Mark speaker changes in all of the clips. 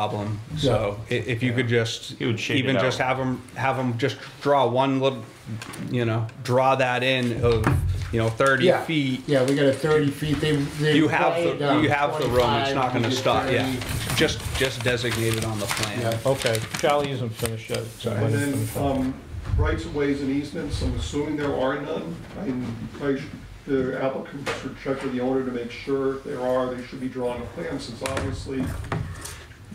Speaker 1: problem. So i- if you could just,
Speaker 2: You would shade it
Speaker 1: even just
Speaker 2: out.
Speaker 1: have them, have them just draw one little, you know, draw that in of, you know, thirty
Speaker 3: Yeah,
Speaker 1: feet.
Speaker 3: Yeah, we got a thirty feet, they, they.
Speaker 1: You have,
Speaker 3: played,
Speaker 1: the
Speaker 3: um,
Speaker 1: you have the room, it's
Speaker 3: 25,
Speaker 1: not gonna
Speaker 3: we did
Speaker 1: stop, yeah.
Speaker 3: 30.
Speaker 1: Just, just designate it on the plan.
Speaker 3: Yeah.
Speaker 4: Okay, Charlie isn't finished yet. so
Speaker 5: And
Speaker 4: let him
Speaker 5: then,
Speaker 4: finish up.
Speaker 5: um, rights of ways and easements, I'm assuming there are none. I, I, sh- the applicant should check with the owner to make sure if there are, they should be drawing a plan, since obviously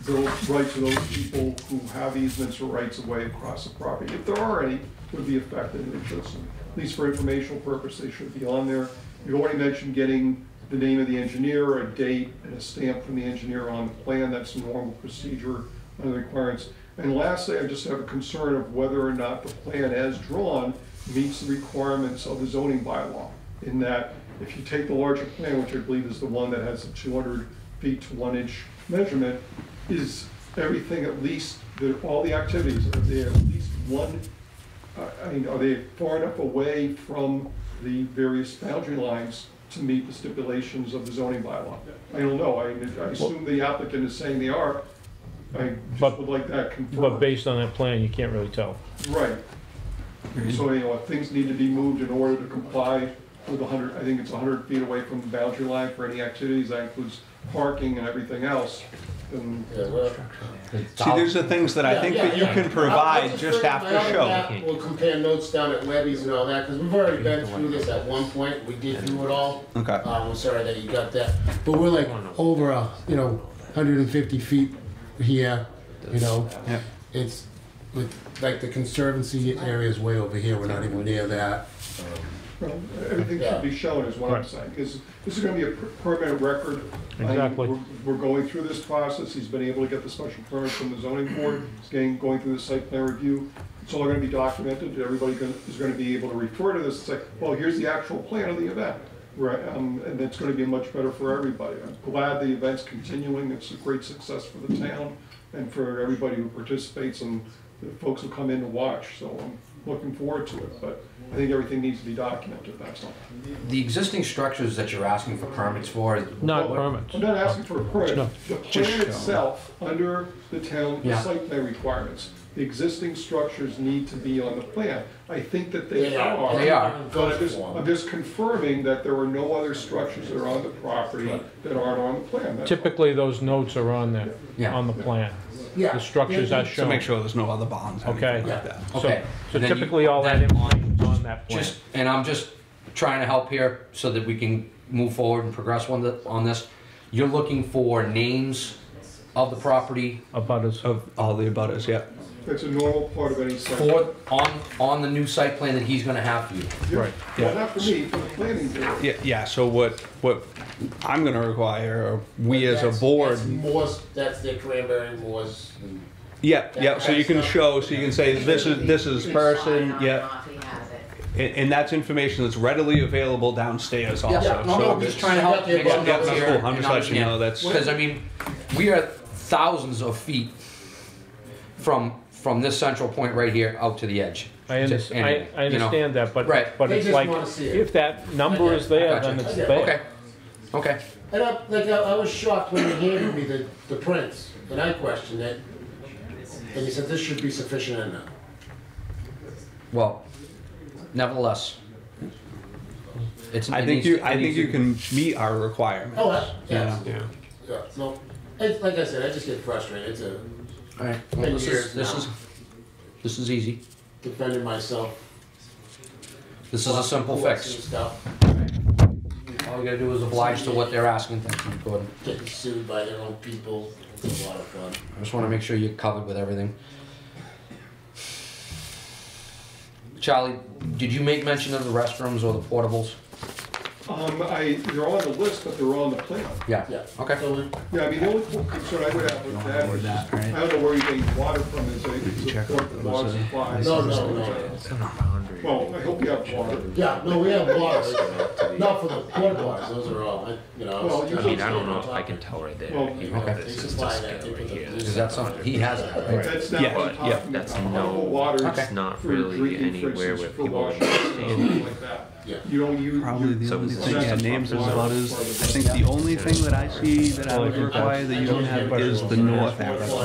Speaker 5: those rights of those people who have easements or rights of way across the property, if there are any, would be affected, and it should, at least for informational purpose, they should be on there. You already mentioned getting the name of the engineer, a date, and a stamp from the engineer on the plan, that's normal procedure under the requirements. And lastly, I just have a concern of whether or not the plan as drawn meets the requirements of the zoning bylaw. In that, if you take the larger plan, which I believe is the one that has the two hundred feet to one inch measurement, is everything at least, that all the activities, are they at least one, I- I mean, are they far enough away from the various boundary lines to meet the stipulations of the zoning bylaw? I don't know, I I assume the applicant is saying they are, I just
Speaker 4: But-
Speaker 5: would like that
Speaker 4: But
Speaker 5: confirmed.
Speaker 4: based on that plan, you can't really tell.
Speaker 5: Right. So, you know, if things need to be moved in order to comply with the hundred, I think it's hundred feet away from the boundary line for any activities, that includes parking and everything else, then
Speaker 3: Yeah, well,
Speaker 1: See, these are things that I
Speaker 3: yeah,
Speaker 1: think
Speaker 3: yeah,
Speaker 1: that you
Speaker 3: yeah.
Speaker 1: can
Speaker 3: I'll- I'll
Speaker 1: provide, just
Speaker 3: bring
Speaker 1: have
Speaker 3: my
Speaker 1: to
Speaker 3: other
Speaker 1: show.
Speaker 3: map. We'll compare notes down at Webby's and all that, because we've already been through this at one point, we did do it all.
Speaker 1: Okay.
Speaker 3: Uh, we're sorry that you got that, but we're like over a, you know, hundred and fifty feet here, you know?
Speaker 1: Yeah.
Speaker 3: It's, with, like, the conservancy area is way over here, we're not even near that.
Speaker 5: Well, Everything should be shown is what I'm
Speaker 4: Right.
Speaker 5: saying, because this is gonna be a per- permanent record. I mean,
Speaker 4: Exactly.
Speaker 5: we're- We're going through this process, he's been able to get the special permit from the zoning board, he's getting, going through the site plan review. It's all gonna be documented, everybody gonna- is gonna be able to refer to this and say, well, here's the actual plan of the event. Right, um, and it's gonna be much better for everybody. I'm glad the event's continuing, it's a great success for the town and for everybody who participates and the folks who come in to watch, so I'm looking forward to it, but I think everything needs to be documented, that's all.
Speaker 6: The existing structures that you're asking for permits for.
Speaker 4: Not
Speaker 5: Well,
Speaker 4: permits.
Speaker 5: I'm not asking for a permit.
Speaker 4: No,
Speaker 5: The plan itself, under the town
Speaker 6: Yeah.
Speaker 5: site plan requirements, the existing structures need to be on the plan. I think that they
Speaker 3: They are.
Speaker 5: are.
Speaker 6: They are.
Speaker 5: But I'm just, I'm just confirming that there are no other structures that are on the property that aren't on the plan. That's all.
Speaker 4: Typically, those notes are on the,
Speaker 6: Yeah.
Speaker 4: on the plan.
Speaker 3: Yeah.
Speaker 4: The structures
Speaker 3: Yeah,
Speaker 4: are
Speaker 3: yeah.
Speaker 1: So make
Speaker 4: shown.
Speaker 1: sure there's no other bonds or
Speaker 4: Okay.
Speaker 1: anything like that.
Speaker 4: So
Speaker 6: Okay.
Speaker 4: so
Speaker 6: And then you-
Speaker 4: typically, all that
Speaker 6: then
Speaker 4: information's on that plan.
Speaker 6: Just, and I'm just trying to help here so that we can move forward and progress on the, on this. You're looking for names of the property
Speaker 4: Abutters.
Speaker 1: Of all the abutters, yeah.
Speaker 5: That's a normal part of any site.
Speaker 6: for, on, on the new site plan that he's gonna have for you.
Speaker 5: Yeah.
Speaker 4: Right,
Speaker 5: Well, not for me, for the planning board.
Speaker 1: Yeah, yeah, so what, what I'm gonna require, or we as a
Speaker 3: That's-
Speaker 1: board.
Speaker 3: That's Morse, that's their cranberry Morse. and-
Speaker 1: Yeah, yeah, so you can show, so you can say, this is, this is person, yeah, and, and that's information that's readily available downstairs also.
Speaker 6: Yeah, no, no,
Speaker 1: So
Speaker 6: I'm just trying to help make
Speaker 3: Yeah,
Speaker 6: some notes
Speaker 1: that's
Speaker 6: here
Speaker 1: cool.
Speaker 6: and
Speaker 1: I'm just letting you know that's-
Speaker 6: Because I mean, we are thousands of feet from, from this central point right here out to the edge.
Speaker 4: I
Speaker 6: To
Speaker 4: understand,
Speaker 6: anywhere,
Speaker 4: I, I
Speaker 6: you know?
Speaker 4: understand that, but,
Speaker 6: Right.
Speaker 4: but
Speaker 3: They
Speaker 4: it's
Speaker 3: just
Speaker 4: like,
Speaker 3: wanna see it.
Speaker 4: if that number is there, then
Speaker 6: Gotcha.
Speaker 4: it's
Speaker 3: Yeah.
Speaker 4: there.
Speaker 6: Okay, okay.
Speaker 3: And I, like, I, I was shocked when they handed me the, the prints, and I questioned it. And he said, this should be sufficient enough.
Speaker 6: Well, nevertheless, it's.
Speaker 1: I
Speaker 6: it
Speaker 1: think
Speaker 6: needs-
Speaker 1: you,
Speaker 6: it
Speaker 1: I think
Speaker 6: needs
Speaker 1: you
Speaker 6: to-
Speaker 1: can meet our requirement.
Speaker 3: Oh, I, yeah,
Speaker 1: Yeah.
Speaker 3: yeah, no, it's, like I said, I just get frustrated, it's a,
Speaker 6: All right. Well, this is
Speaker 3: years
Speaker 6: this
Speaker 3: now.
Speaker 6: is this is easy.
Speaker 3: defending myself.
Speaker 6: This is a simple
Speaker 3: and
Speaker 6: fix.
Speaker 3: Stuff,
Speaker 6: All we gotta do is oblige to what they're asking. Thank you, Gordon.
Speaker 3: getting sued by their own people, it's a lot of fun.
Speaker 6: I just want to make sure you're covered with everything. Charlie, did you make mention of the restrooms or the portables?
Speaker 5: Um, I, they're on the list, but they're on the plan.
Speaker 6: Yeah.
Speaker 3: Yeah.
Speaker 6: Okay.
Speaker 3: So we-
Speaker 5: Yeah, I mean, the only concern I would have with that is, just- I don't know where you're getting water from, is it, is it the water supply?
Speaker 3: No, no, no.
Speaker 5: Well, I hope you have water.
Speaker 3: Yeah, no, we have bars, not for the porta bars, those are all, I- you know.
Speaker 5: Well, you
Speaker 3: was-
Speaker 5: can't-
Speaker 7: I mean, I don't know if I can tell right there.
Speaker 5: Well,
Speaker 7: even if
Speaker 6: okay.
Speaker 7: This
Speaker 3: They
Speaker 7: is
Speaker 3: supply
Speaker 7: just
Speaker 3: that, they
Speaker 7: right
Speaker 3: put the
Speaker 7: here.
Speaker 3: blue
Speaker 7: This
Speaker 6: Is that something, he has that, right?
Speaker 5: That's not what I'm
Speaker 1: Yeah, yeah.
Speaker 5: talking about.
Speaker 2: That's
Speaker 5: Potable
Speaker 2: no,
Speaker 5: water
Speaker 2: it's not
Speaker 5: for
Speaker 2: really
Speaker 5: drinking, for
Speaker 2: anywhere
Speaker 5: instance,
Speaker 2: where
Speaker 5: for
Speaker 2: people are
Speaker 5: washing,
Speaker 2: understanding.
Speaker 5: Stuff like that.
Speaker 3: Yeah.
Speaker 5: You don't use.
Speaker 1: Probably the
Speaker 2: So
Speaker 1: only
Speaker 2: it's
Speaker 1: thing,
Speaker 2: just
Speaker 1: yeah,
Speaker 2: a
Speaker 1: names and
Speaker 5: pump water.
Speaker 1: butters, I think the only thing that I see that I would require that you don't have is the north arrow.